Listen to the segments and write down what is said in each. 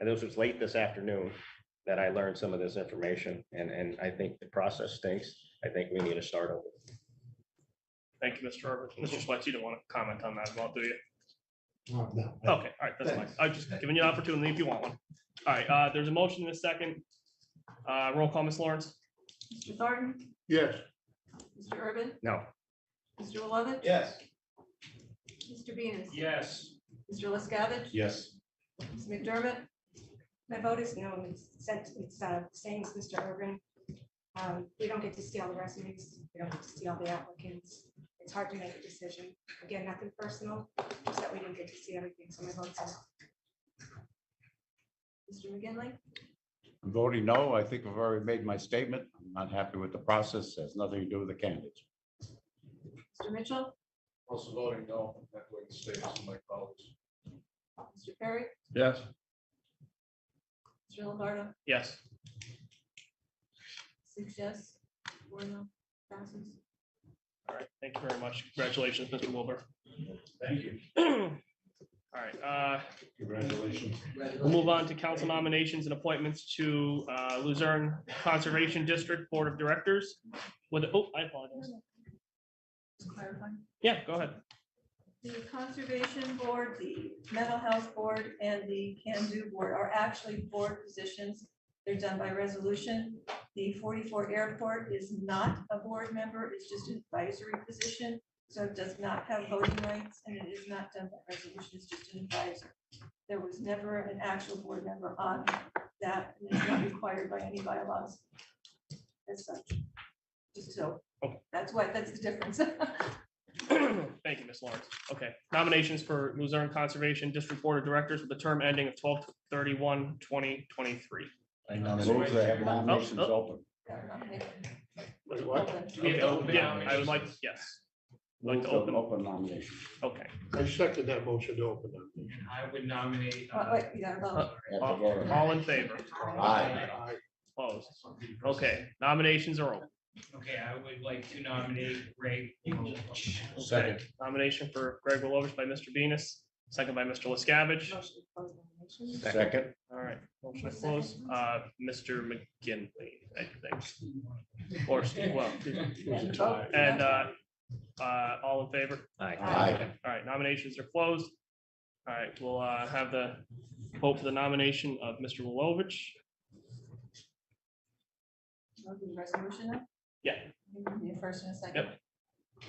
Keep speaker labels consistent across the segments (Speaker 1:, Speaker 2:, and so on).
Speaker 1: And this was late this afternoon that I learned some of this information and, and I think the process stinks. I think we need to start over.
Speaker 2: Thank you, Mr. Herbert. Mr.
Speaker 3: Mhm.
Speaker 2: Swett, you don't want to comment on that as well, do you?
Speaker 3: Oh, no.
Speaker 2: Okay, all right, that's fine. i have just giving you an opportunity if you want one. All right, uh, there's a motion in a second. Uh, roll call, Ms. Lawrence?
Speaker 4: Mr. Thornton,
Speaker 3: Yes.
Speaker 4: Mr. Urban,
Speaker 1: No,
Speaker 4: Mr. Lovett.
Speaker 3: Yes.
Speaker 4: Mr. Venus.
Speaker 2: Yes.
Speaker 4: Mr. LaScavitch.
Speaker 3: Yes.
Speaker 4: Ms. McDermott.
Speaker 5: My vote is no, it's, set- it's uh, same as Mr. Urban. Um, We don't get to see all the resumes, we don't get to see all the applicants. It's hard to make a decision. Again, nothing personal, just that we didn't get to see everything, so my vote's no.
Speaker 4: Mr. McGinley,
Speaker 6: I'm voting no. I think I've already made my statement. I'm not happy with the process. It Has nothing to do with the candidates.
Speaker 4: Mr. Mitchell,
Speaker 3: Also voting no, that way the statements of my colleagues.
Speaker 4: Mr. Perry,
Speaker 6: Yes.
Speaker 4: Mr. Lombardo,
Speaker 2: Yes.
Speaker 4: six yes, four no, passes.
Speaker 2: All right, thank you very much. Congratulations, Mr. Wilbur.
Speaker 3: Thank you.
Speaker 2: All right, uh,
Speaker 3: Congratulations.
Speaker 2: We'll move on to council nominations and appointments to uh, Luzerne Conservation District Board of Directors. With, oh, I apologize.
Speaker 4: Just clarifying.
Speaker 2: Yeah, go ahead.
Speaker 4: The Conservation Board, the Mental Health Board, and the Can Do Board are actually board positions. They're done by resolution. The forty-four Airport is not a board member, it's just an advisory position. So it does not have voting rights, and it is not done by resolution, it's just an advisor. There was never an actual board member on that, and it's not required by any bylaws as such. Just so,
Speaker 2: Okay.
Speaker 4: that's why, that's the difference.
Speaker 2: Thank you, Ms. Lawrence. Okay, nominations for Luzerne Conservation District Board of Directors with the term ending of 12 31 thirty-one, twenty twenty-three.
Speaker 6: I move to have nominations
Speaker 2: Oh,
Speaker 6: open.
Speaker 4: Got it on paper.
Speaker 3: what?
Speaker 2: Yeah, I would like, yes. Like
Speaker 6: Move
Speaker 2: to
Speaker 6: to
Speaker 2: open-
Speaker 6: open nomination.
Speaker 2: Okay,
Speaker 3: I second that motion to open them.
Speaker 7: I would nominate. uh,
Speaker 4: Oh, Wait, you gotta vote.
Speaker 2: all all in favor,
Speaker 6: Aye.
Speaker 2: opposed. Okay, nominations are open.
Speaker 7: Okay, I would like to nominate Ray. Welch.
Speaker 2: Second. Nomination for Greg Willoughby by Mr. Venus, second by Mr. Liscavige.
Speaker 4: Motion to close nominations.
Speaker 6: Second.
Speaker 2: All right, motion to close, uh, Mr. McGinley, I think. Or, well,
Speaker 4: And vote.
Speaker 2: and, uh, uh, all in favor?
Speaker 6: Aye.
Speaker 2: All right, nominations are closed. All right, we'll, uh, have the vote for the nomination of Mr. Wilovich.
Speaker 4: I'll do the Resolution. now?
Speaker 2: Yeah.
Speaker 4: You can do the First and a second.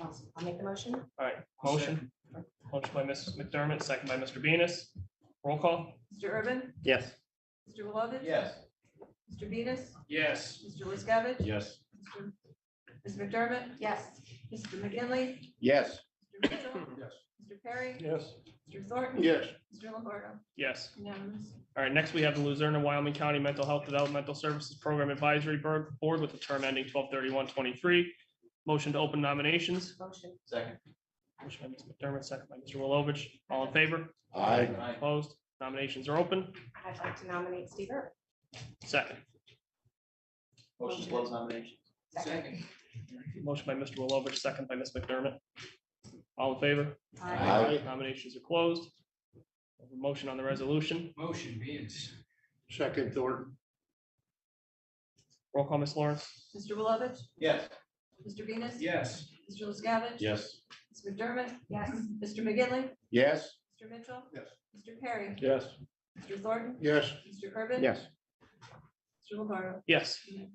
Speaker 5: Awesome. I'll make the motion.
Speaker 2: All right, motion, motion by Mrs. McDermott, second by Mr. Venus. Roll call?
Speaker 4: Mr. Urban,
Speaker 2: Yes.
Speaker 4: Mr. Lovett.
Speaker 3: Yes.
Speaker 4: Mr. Venus,
Speaker 7: Yes.
Speaker 4: Mr. Liscavich.
Speaker 6: Yes.
Speaker 4: Mr. Ms. McDermott,
Speaker 5: Yes.
Speaker 4: Mr. McGinley,
Speaker 6: Yes.
Speaker 4: Mr. Mitchell,
Speaker 3: Yes.
Speaker 4: Mr. Perry,
Speaker 3: Yes.
Speaker 4: Mr. Thornton.
Speaker 3: Yes.
Speaker 4: Mr. Lombardo.
Speaker 2: Yes.
Speaker 4: Unanimous.
Speaker 2: All right, next we have the Luzerne and Wyoming County Mental Health Developmental Services Program Advisory Board Board with a term ending twelve thirty-one twenty-three. Motion to open nominations.
Speaker 5: Motion.
Speaker 3: Second.
Speaker 2: Motion by Mr. McDermott, second by Mr. Wilovich. All in favor?
Speaker 6: Aye.
Speaker 2: Opposed? Nominations are open.
Speaker 5: I'd like to nominate Steve Urban.
Speaker 2: Second.
Speaker 5: Motion to close Second.
Speaker 7: Second.
Speaker 2: Motion by Mr. Wilovich, second by Ms. McDermott. All in favor?
Speaker 5: Aye.
Speaker 2: Nominations are closed. Motion on the resolution.
Speaker 7: Motion Venus.
Speaker 3: Second, Thornton.
Speaker 2: Roll call, Ms. Lawrence.
Speaker 4: Mr. Lovett,
Speaker 3: Yes.
Speaker 4: Mr. Venus.
Speaker 7: Yes.
Speaker 4: Mr. Liscavich.
Speaker 6: Yes.
Speaker 4: Ms. McDermott,
Speaker 5: Yes.
Speaker 4: Mr. McGinley,
Speaker 6: Yes.
Speaker 4: Mr. Mitchell.
Speaker 3: Yes.
Speaker 4: Mr. Perry,
Speaker 6: Yes.
Speaker 4: Mr. Thornton,
Speaker 3: Yes.
Speaker 4: Mr. Urban.
Speaker 6: Yes.
Speaker 4: Mr. Lombardo.
Speaker 2: Yes.
Speaker 4: Unanimous.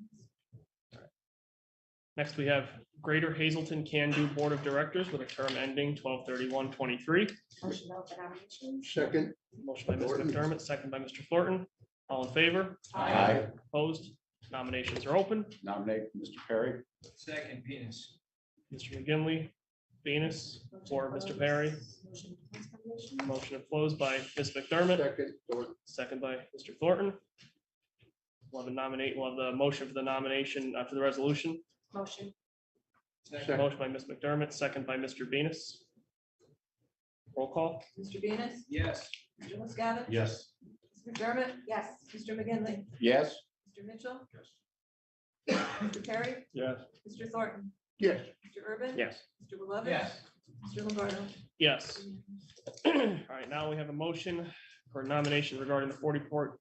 Speaker 2: Next, we have Greater Hazelton Can Do Board of Directors with a term ending twelve thirty-one twenty-three.
Speaker 5: Motion to open nominations.
Speaker 3: Second.
Speaker 2: Motion by Ms.
Speaker 3: Thornton.
Speaker 2: McDermott, second by Mr. Thornton. All in favor?
Speaker 6: Aye.
Speaker 2: Opposed? Nominations are open.
Speaker 6: Nominate Mr. Perry.
Speaker 7: Second Venus.
Speaker 2: Mr. McGinley, Venus,
Speaker 5: Motion
Speaker 2: or
Speaker 5: to
Speaker 2: Mr.
Speaker 5: close.
Speaker 2: Perry.
Speaker 5: Motion to close nominations.
Speaker 2: Motion opposed by Ms. McDermott.
Speaker 3: Second, Thornton.
Speaker 2: Second by Mr. Thornton. We'll have a nominate, we'll have the motion for the nomination, uh, for the resolution.
Speaker 5: Motion.
Speaker 3: Second.
Speaker 2: Motion by Ms. McDermott, second by Mr. Venus. Roll call?
Speaker 4: Mr. Venus,
Speaker 7: Yes.
Speaker 4: Mr. Liscavich.
Speaker 6: Yes.
Speaker 4: Ms. McDermott,
Speaker 5: Yes.
Speaker 4: Mr. McGinley,
Speaker 6: Yes.
Speaker 4: Mr. Mitchell. Mr. Perry,
Speaker 6: Yes.
Speaker 4: Mr. Thornton,
Speaker 3: Yes.
Speaker 4: Mr. Urban.
Speaker 2: Yes.
Speaker 4: Mr. Lovett.
Speaker 7: Yes.
Speaker 4: Mr. Lombardo.
Speaker 2: Yes. All right, now we have a motion for nomination regarding the forty-four